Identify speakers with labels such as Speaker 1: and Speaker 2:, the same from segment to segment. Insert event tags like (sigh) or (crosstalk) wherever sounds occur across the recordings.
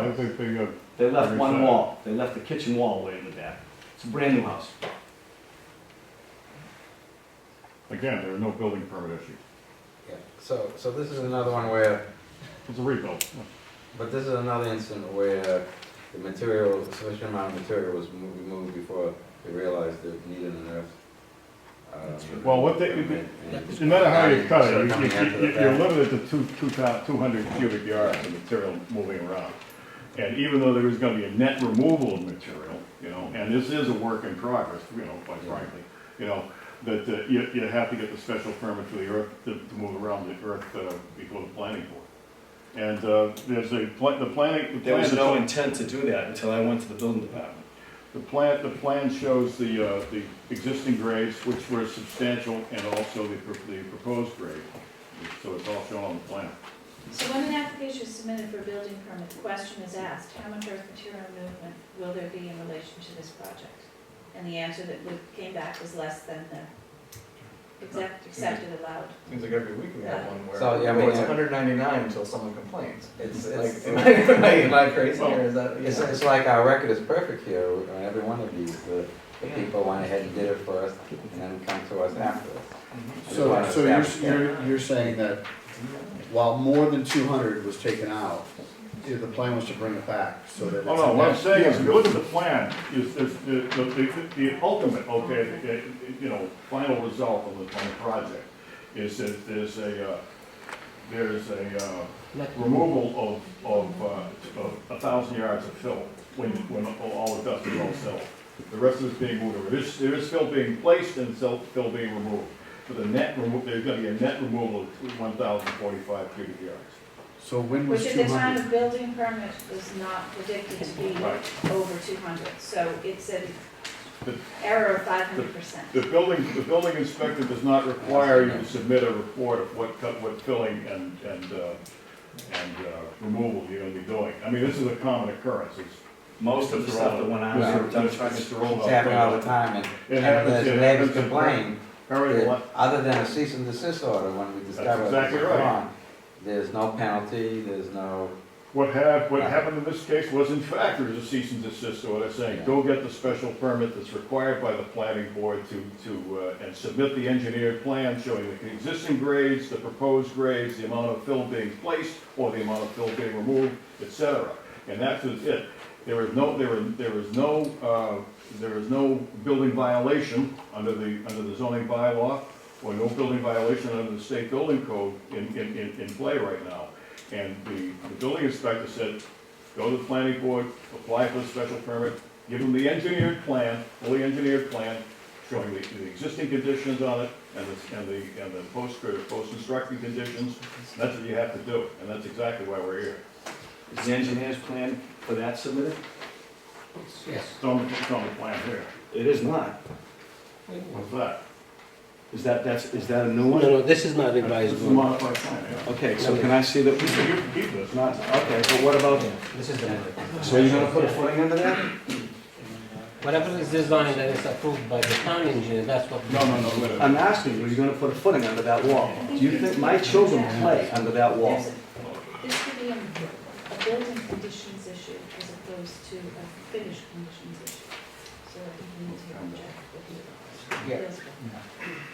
Speaker 1: they uh, figured,
Speaker 2: They left
Speaker 1: Very
Speaker 2: one
Speaker 1: sad.
Speaker 2: wall, they left the kitchen wall way in the back. It's a brand new house.
Speaker 1: again, there was no building permit issue.
Speaker 3: Yeah, so, so this is another one where,
Speaker 1: It's a rebuild.
Speaker 3: but this is another instance where the material, sufficient amount of material was mo- removed before they realized they needed an earth. um,
Speaker 1: Well, what they-
Speaker 3: permit, and-
Speaker 1: No matter how you cut it,
Speaker 3: Start coming after
Speaker 1: you-
Speaker 3: the
Speaker 1: you- you're
Speaker 3: fact.
Speaker 1: limited to two, two thou- 200 cubic yards of material moving around. And even though there is gonna be a net removal of material, you know, and this is a work in progress, you know, quite frankly, you know, that uh, you, you have to get the special permit for the earth, to, to move around the earth uh, before the planning board. And uh, there's a, pla- the planning. the
Speaker 4: There was
Speaker 1: plan-
Speaker 4: no intent to do that until I went to the building department.
Speaker 1: The plan, the plan shows the, uh, the existing grades, which were substantial, and also the, pro- the proposed grade. So it's all shown on the plan.
Speaker 5: So when an application is submitted for a building permit, the question is asked, how much earth material movement will there be in relation to this project? And the answer that would- came back was less than the exact, accepted allowed.
Speaker 6: Seems like every week we have one where
Speaker 3: So, yeah, I
Speaker 6: oh,
Speaker 3: mean,
Speaker 6: it's
Speaker 3: yeah.
Speaker 6: 199 until someone complains.
Speaker 3: It's,
Speaker 6: Like,
Speaker 3: it's,
Speaker 6: (laughs) am I, am I, am I crazy or is that?
Speaker 3: it's, it's like our record is perfect here, uh, every one of these, the, the people went ahead and did it for us, and then come to us afterwards. I just
Speaker 7: So,
Speaker 3: wanna
Speaker 7: so you're,
Speaker 3: establish that.
Speaker 7: you're, you're saying that while more than two hundred was taken out, the plan was to bring it back, so that it's.
Speaker 1: Oh, no, what I'm saying is, if you look at the plan, is, is the, the, the- the ultimate, okay, the- the- you know, final result of the, on the project is that there's a, uh, there's a, uh, removal of, of, uh, of a thousand yards of fill when, when all the dust is all filled. The rest is being moved, over. there's, there is fill being placed and fill, fill being removed. For the net remo, there's gonna be a net removal of one thousand forty-five cubic yards.
Speaker 7: So when was
Speaker 5: Which at
Speaker 7: two
Speaker 5: the time
Speaker 7: hundred?
Speaker 5: of building permit was not predicted to be
Speaker 1: Right.
Speaker 5: over two hundred, so it's an
Speaker 1: The-
Speaker 5: error of five hundred percent.
Speaker 1: The building, the building inspector does not require you to submit a report of what cut, what filling and, and, uh, and, uh, removal you're gonna be doing. I mean, this is a common occurrence, it's.
Speaker 4: Most of the stuff that went on
Speaker 3: Yeah.
Speaker 4: were dump trucks.
Speaker 1: Mr. Roloff.
Speaker 3: It's happening all the time, and,
Speaker 1: It
Speaker 3: and
Speaker 1: happens,
Speaker 3: the
Speaker 1: it
Speaker 3: neighbors
Speaker 1: happens.
Speaker 3: complain,
Speaker 1: Harry,
Speaker 3: that
Speaker 1: what-
Speaker 3: other than a cease and desist order, when we discover
Speaker 1: exactly
Speaker 3: it's
Speaker 1: right.
Speaker 3: wrong, there's no penalty, there's no,
Speaker 1: what hap, what happened in this case was in fact, there was a cease and desist order saying, go get the special permit that's required by the planning board to, to, uh, and submit the engineered plan showing the existing grades, the proposed grades, the amount of fill being placed, or the amount of fill being removed, et cetera. And that was it. There was no, there was, there was no, uh, there was no building violation under the, under the zoning bylaw, or no building violation under the state building code in, in, in, in play right now. And the, the building inspector said, go to the planning board, apply for the special permit, give them the engineered plan, fully engineered plan, showing the, the existing conditions on it, and the, and the, and the post, uh, post-construction conditions, And that's what you have to do, and that's exactly why we're here.
Speaker 2: Is the engineer's plan for that submitted?
Speaker 1: It's on, the- it's on the plan here,
Speaker 2: It is not.
Speaker 1: what's that?
Speaker 2: Is that, that's, is that a new
Speaker 8: No,
Speaker 2: one?
Speaker 8: no, this is not
Speaker 1: This
Speaker 8: revised.
Speaker 1: is a modified plan, yeah.
Speaker 2: Okay, so can I see
Speaker 1: You
Speaker 2: the,
Speaker 1: can keep this.
Speaker 2: not, okay, but what about,
Speaker 3: this is the.
Speaker 2: so you're gonna put a footing under that?
Speaker 8: Whatever is designed that is approved by the town engineer, that's what.
Speaker 1: No, no, no, wait a minute.
Speaker 2: I'm asking, you, are you gonna put a footing under that wall? Do you think my children play under that wall?
Speaker 5: There's a- This could be a a building conditions issue as opposed to a finished conditions issue. So I think we need to object with the-
Speaker 3: Yeah.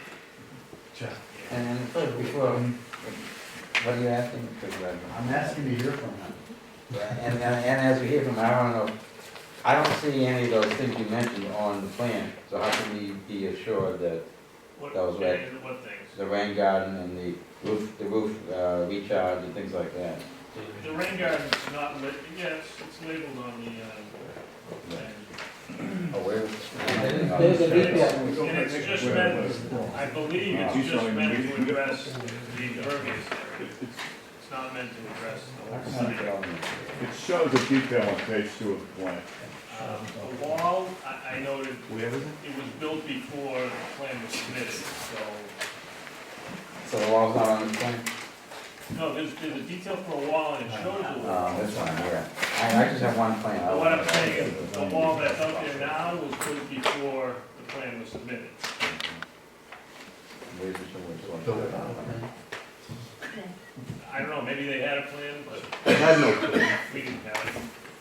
Speaker 3: And then before, what are you asking?
Speaker 7: I'm asking to hear from them.
Speaker 3: And, and as we hear from, I don't know, I don't see any of those things you mentioned on the plan, so how can we be assured that those were,
Speaker 9: What things?
Speaker 3: the rain garden and the roof, the roof, uh, recharge and things like that?
Speaker 9: The rain garden's not lit, yes, it's labeled on the, uh, thing.
Speaker 3: Oh, where?
Speaker 8: There's a
Speaker 9: And
Speaker 8: detail.
Speaker 9: it's- and it's just meant, I believe
Speaker 1: He's
Speaker 9: it's just
Speaker 1: showing
Speaker 9: meant
Speaker 1: the-
Speaker 9: to address the impervious area. It's not meant to address the whole site.
Speaker 1: It shows a detail on page two of the plan.
Speaker 9: Um, The wall, I, I noted, it was built before the plan was submitted, so,
Speaker 3: So the wall's not on the plan?
Speaker 9: no, there's, there's a detail for a wall and it shows the wall.
Speaker 3: Oh, this one, yeah. I, I just have one plan. I
Speaker 9: But What I'm
Speaker 3: don't-
Speaker 9: saying is, the wall that's up there now was built before the plan was submitted.
Speaker 3: Where's the- where's the
Speaker 7: Build
Speaker 3: one?
Speaker 7: it out.
Speaker 9: I don't know, maybe they had a plan, but
Speaker 4: I had no clue.
Speaker 9: we didn't have it.